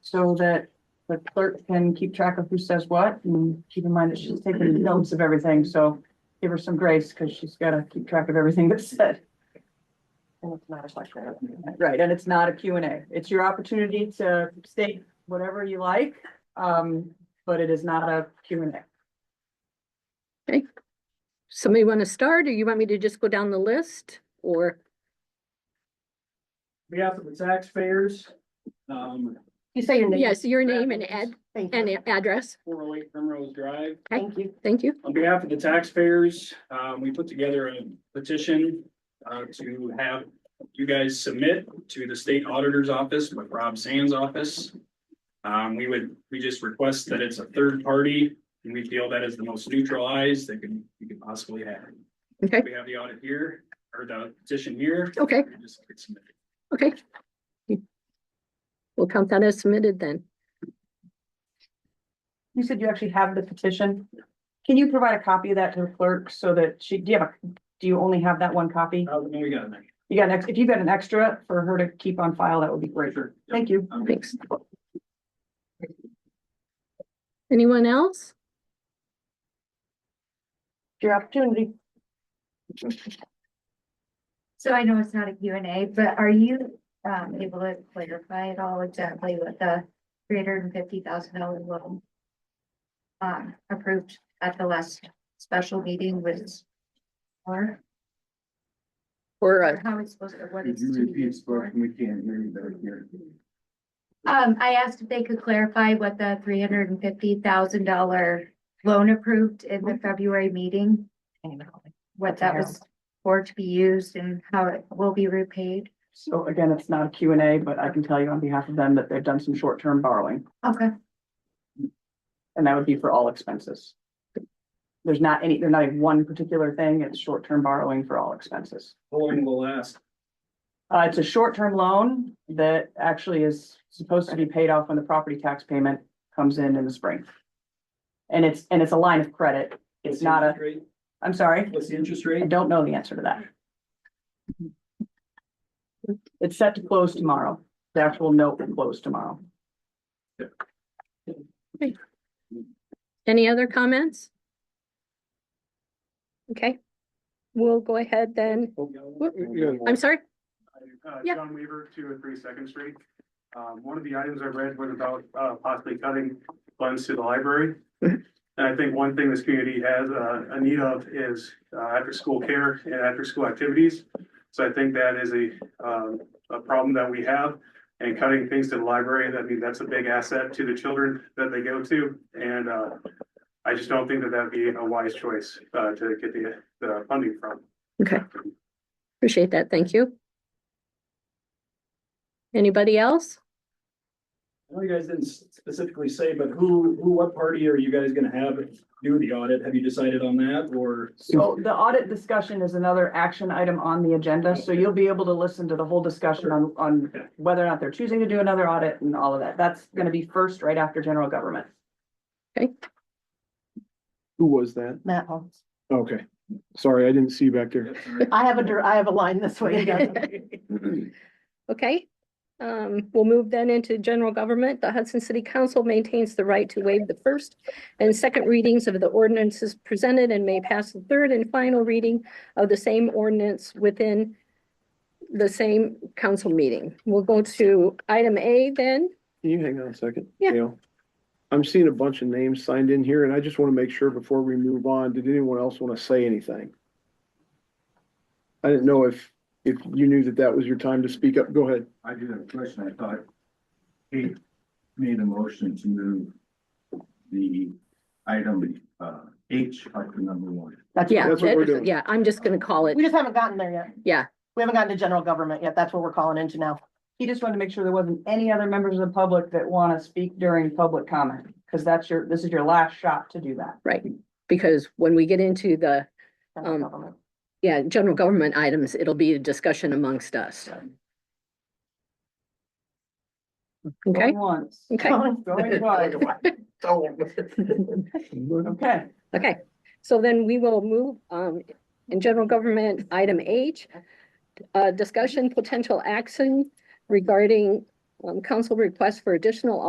so that the clerk can keep track of who says what and keep in mind that she's taking notes of everything, so give her some grace because she's got to keep track of everything that's said. And it's not a question. Right, and it's not a Q and A. It's your opportunity to state whatever you like, um, but it is not a Q and A. Somebody want to start, or you want me to just go down the list, or? behalf of the taxpayers, um, You say your name. Yes, your name and ad, Thank and you. a- address. four oh eight Primrose Drive. Thank you. Thank you. On behalf of the taxpayers, um, we put together a petition, uh, to have you guys submit to the state auditor's office with Rob Sands' office. Um, we would, we just request that it's a third party, and we feel that is the most neutralized that can, you could possibly have. Okay. We have the audit here, or the petition here. Okay. We just get submitted. Okay. We'll count that as submitted then. You said you actually have the petition. Can you provide a copy of that to the clerk so that she, do you have, a? do you only have that one copy? Uh, then we got a minute. You got an, ex- if you got an extra for her to keep on file, that would be great. Sure. Yep. Thank you. Um, Thanks. Anyone else? Your opportunity. So I know it's not a Q and A, but are you um able to clarify at all exactly what the three hundred and fifty thousand dollar loan? Um, approved at the last special meeting was. Or Or, or uh, how it's supposed to, what Could it's you to be repeat, used for? spoken, we can't hear you back here. Um, I asked if they could clarify what the three hundred and fifty thousand dollar loan approved in the February meeting. What that was for to be used and how it will be repaid. So again, it's not a Q and A, but I can tell you on behalf of them that they've done some short-term borrowing, Okay, and that would be for all expenses. There's not any, they're not in one particular thing, it's short-term borrowing for all expenses. How long will it last? Uh, it's a short-term loan that actually is supposed to be paid off when the property tax payment comes in in the spring. And it's, and it's a line of credit. It's not a, I'm sorry, What's the interest I rate? don't know the answer to that. It's set to close tomorrow. The actual note will close tomorrow. any other comments? Okay. We'll go ahead then. I'm sorry. Uh, Yeah. John Weaver, two and three Second Street. Um, one of the items I read was about, uh, possibly cutting funds to the library. And I think one thing this community has, uh, a need of is, uh, after-school care and after-school activities. So I think that is a, um, a problem that we have. And cutting things to the library, that means that's a big asset to the children that they go to. And, uh, I just don't think that that'd be a wise choice, uh, to get the, the funding from. Okay. Appreciate that. Thank you. Anybody else? I know you guys didn't s- specifically say, but who, who, what party are you guys gonna have do the audit? Have you decided on that or? So the audit discussion is another action item on the agenda, so you'll be able to listen to the whole discussion on, on whether or not they're choosing to do another audit and all of that. That's gonna be first right after general government. Who was that? Matt Holmes. Okay, sorry, I didn't see you back there. I have a, dir- I have a line this way. Okay, um, we'll move then into general government. The Hudson City Council maintains the right to waive the first and second readings of the ordinances presented and may pass the third and final reading of the same ordinance within the same council meeting. We'll go to item A then. Can you hang on a second? Yeah. Gail? I'm seeing a bunch of names signed in here, and I just want to make sure before we move on, did anyone else want to say anything? I didn't know if, if you knew that that was your time to speak up. Go ahead. I do have a question. I thought he made a motion to move the item, uh, H up to number one. That's- Yeah, That's what we're doing. yeah, I'm just gonna call it. We just haven't gotten there yet. Yeah. We haven't gotten to general government yet. That's what we're calling into now. He just wanted to make sure there wasn't any other members of the public that want to speak during public comment, because that's your, this is your last shot to do that. Right, because when we get into the, general Um, government. yeah, general government items, it'll be a discussion amongst us. Okay, Going Once, okay. going twice. Okay, Okay, so then we will move, um, in general government, item H. Uh, discussion potential action regarding, um, council request for additional